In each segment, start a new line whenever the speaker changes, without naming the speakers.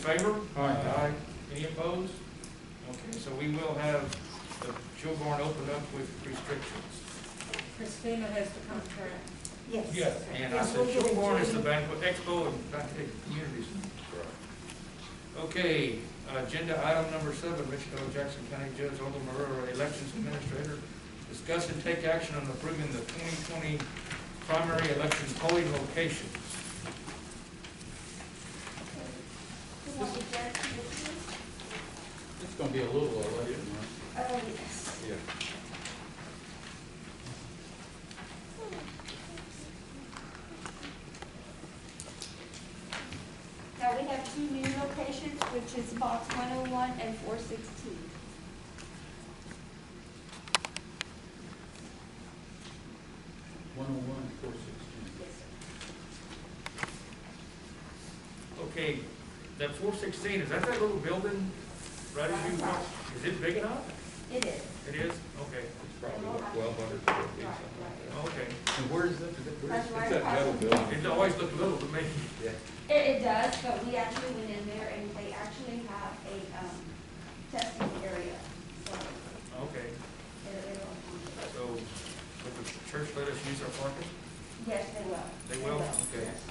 Favor?
Aye.
Any opposed? Okay, so we will have the Kilgore opened up with restrictions.
Christina has the contract.
Yes.
And I
Yes,
said
we'll give it to
Kilgore is
you.
the banquet expo and banquet communities. Okay, agenda item number seven, Richard O. Jackson County Judge Aldo Marrero, Elections Administrator. Discuss and take action on approving the 2020 primary election polling locations.
Who wants to judge you?
It's gonna be a little election, right?
Uh, yes.
Yeah.
Now, we have two new locations, which is box one oh one and four sixteen.
One oh one, four sixteen.
Yes, sir.
Okay, that 416, is that that little building right as you walk? Is it big enough?
It is.
It is? Okay,
It's probably what, twelve hundred square feet, something like
okay.
And where is that, where is
That's
it?
that. It's
right
that metal
across. from-
building.
It always looked little to me.
Yeah.
It, it does, but we actually went in there and they actually have a, um, testing area, so
Okay,
they're, they're on.
so would the church let us use our parking?
Yes, they will.
They will? Okay.
yes.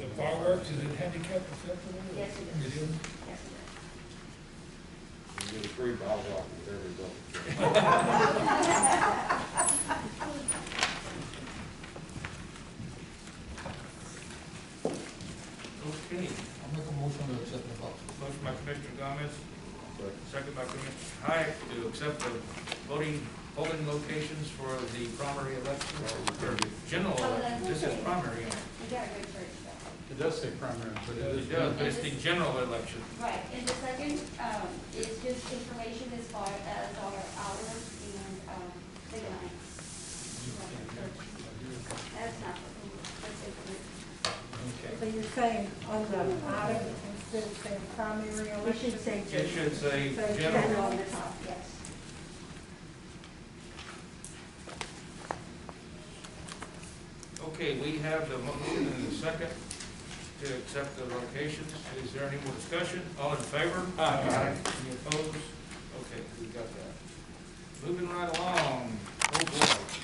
The fireworks, is it handicap acceptable?
Yes, it is.
It is?
Yes, it
You get a free bottle rocket with every building.
Okay.
I'll make a motion to accept the box.
Motion by Commissioner Gomez, second by Commissioner Hayek to accept the voting, polling locations for the primary election, or general
Oh,
election. This is primary.
is. You got a good church though.
It does say primary, but it is.
It does, but it's the general election.
Right, and the second, um, is just information as far as our hours and, um, the lines. That's not, that's information.
So you're saying on the item, instead of saying primary election?
We should say
It should say
Say
general.
General on the top, yes.
Okay, we have the motion and the second to accept the locations. Is there any more discussion? All in favor? Aye. Any opposed? Okay, we got that. Moving right along. Oh, boy.